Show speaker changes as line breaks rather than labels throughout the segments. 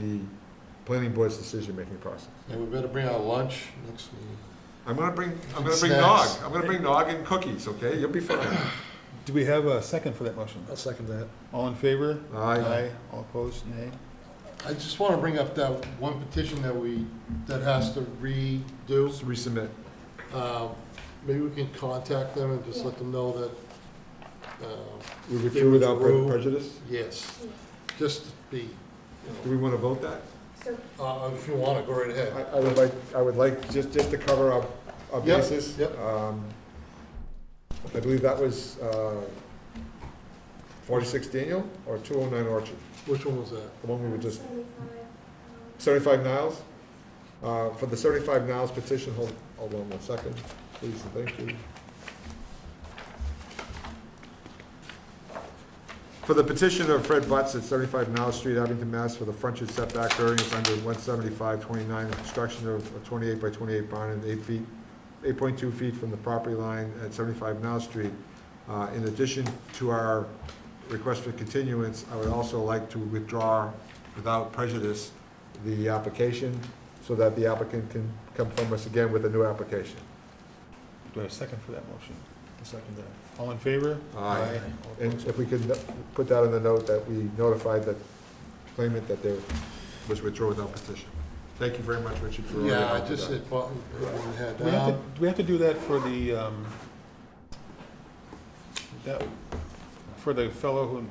the planning board's decision-making process.
Yeah, we better bring out lunch next meeting.
I'm gonna bring, I'm gonna bring Nog,
Snacks.
I'm gonna bring Nog and cookies, okay? You'll be fine.
Do we have a second for that motion?
I'll second that.
All in favor?
Aye.
All opposed, nay?
I just want to bring up that one petition that we, that has to redo.
Just resubmit.
Uh, Maybe we can contact them and just let them know that, uh,
We
They
withdrew without pre-
withdrew.
prejudice?
yes, just to be,
Do we wanna vote that?
So
uh, if you want to, go right
I,
ahead.
I would like, I would like, just, just to cover our, our
Yep,
bases.
yep.
um, I believe that was, uh, forty-six Daniel or two oh nine Orchard,
Which one was that?
the one we were just,
75,
um, seventy-five Niles? Uh, for the seventy-five Niles petition, hold, hold on one second, please and thank you. For the petition of Fred Butts at seventy-five Niles Street, Abington, Mass, for the frontage setback variance under one seventy-five twenty-nine, and construction of a twenty-eight by twenty-eight barn and eight feet, eight point two feet from the property line at seventy-five Niles Street. Uh, in addition to our request for continuance, I would also like to withdraw without prejudice the application, so that the applicant can come from us again with a new application.
Do I have a second for that motion?
I'll second that.
All in favor?
Aye.
All
And
opposed?
if we could put that in the note that we notified the claimant that there was withdraw without petition. Thank you very much, Richard, for all your
Yeah,
help
I
with
just
that.
said, well, we had,
Do we have to,
um,
do we have to do that for the, um, that, for the fellow who, um,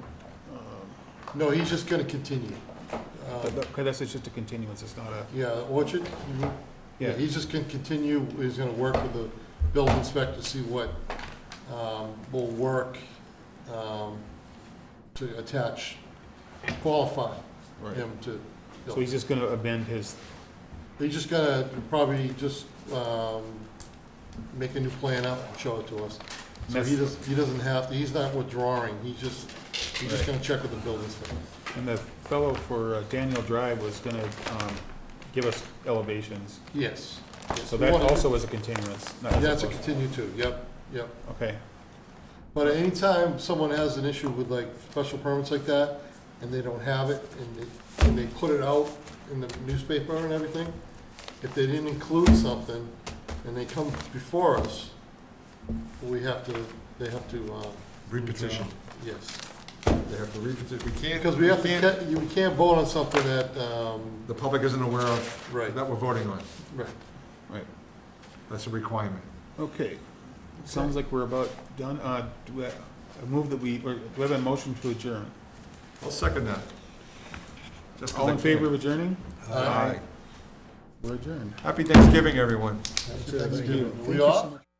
no, he's just going to continue. Uh,
that- that- okay, that's just a continuance, it's not a,
Yeah, Orchard, you- Yeah,
yeah.
he's just gonna continue, he's gonna work with the building inspector, to see what, um, will work, um, to attach, qualify
right.
him to.
So he's just gonna amend his,
He's just gonna probably just, um, make a new plan up and show it to us. So he
That's-
doesn't, he doesn't have to, he's not withdrawing, he just, he's just
Right.
gonna check with the building inspector.
and the fellow for uh, Daniel Drive was gonna, um, give us elevations.
Yes. yes.
So
We
that
want to-
also is a continuance, not as
That's a
opposed-
continue too, yep, yep.
Okay,
But anytime someone has an issue with like special permits like that, and they don't have it, and they, and they put it out in the newspaper and everything, if they didn't include something, and they come before us, we have to, they have to, uh,
Repetition,
yes.
they have to repetition, we can't.
Because we have to,
can't-
ca- you we can't vote on something that, um,
The public isn't aware of,
right,
that we're voting on,
right.
right.
that's a requirement.
Okay, sounds like we're about done. Uh, do I, I move that we, or do we have a motion to adjourn?
I'll second that. Just 'cause
All
I
in favor
can.
of adjourning?
Uh,
Aye.
We're adjourned.
Happy Thanksgiving, everyone.
that's-
Thank you.
We
Thank you so
are?
much.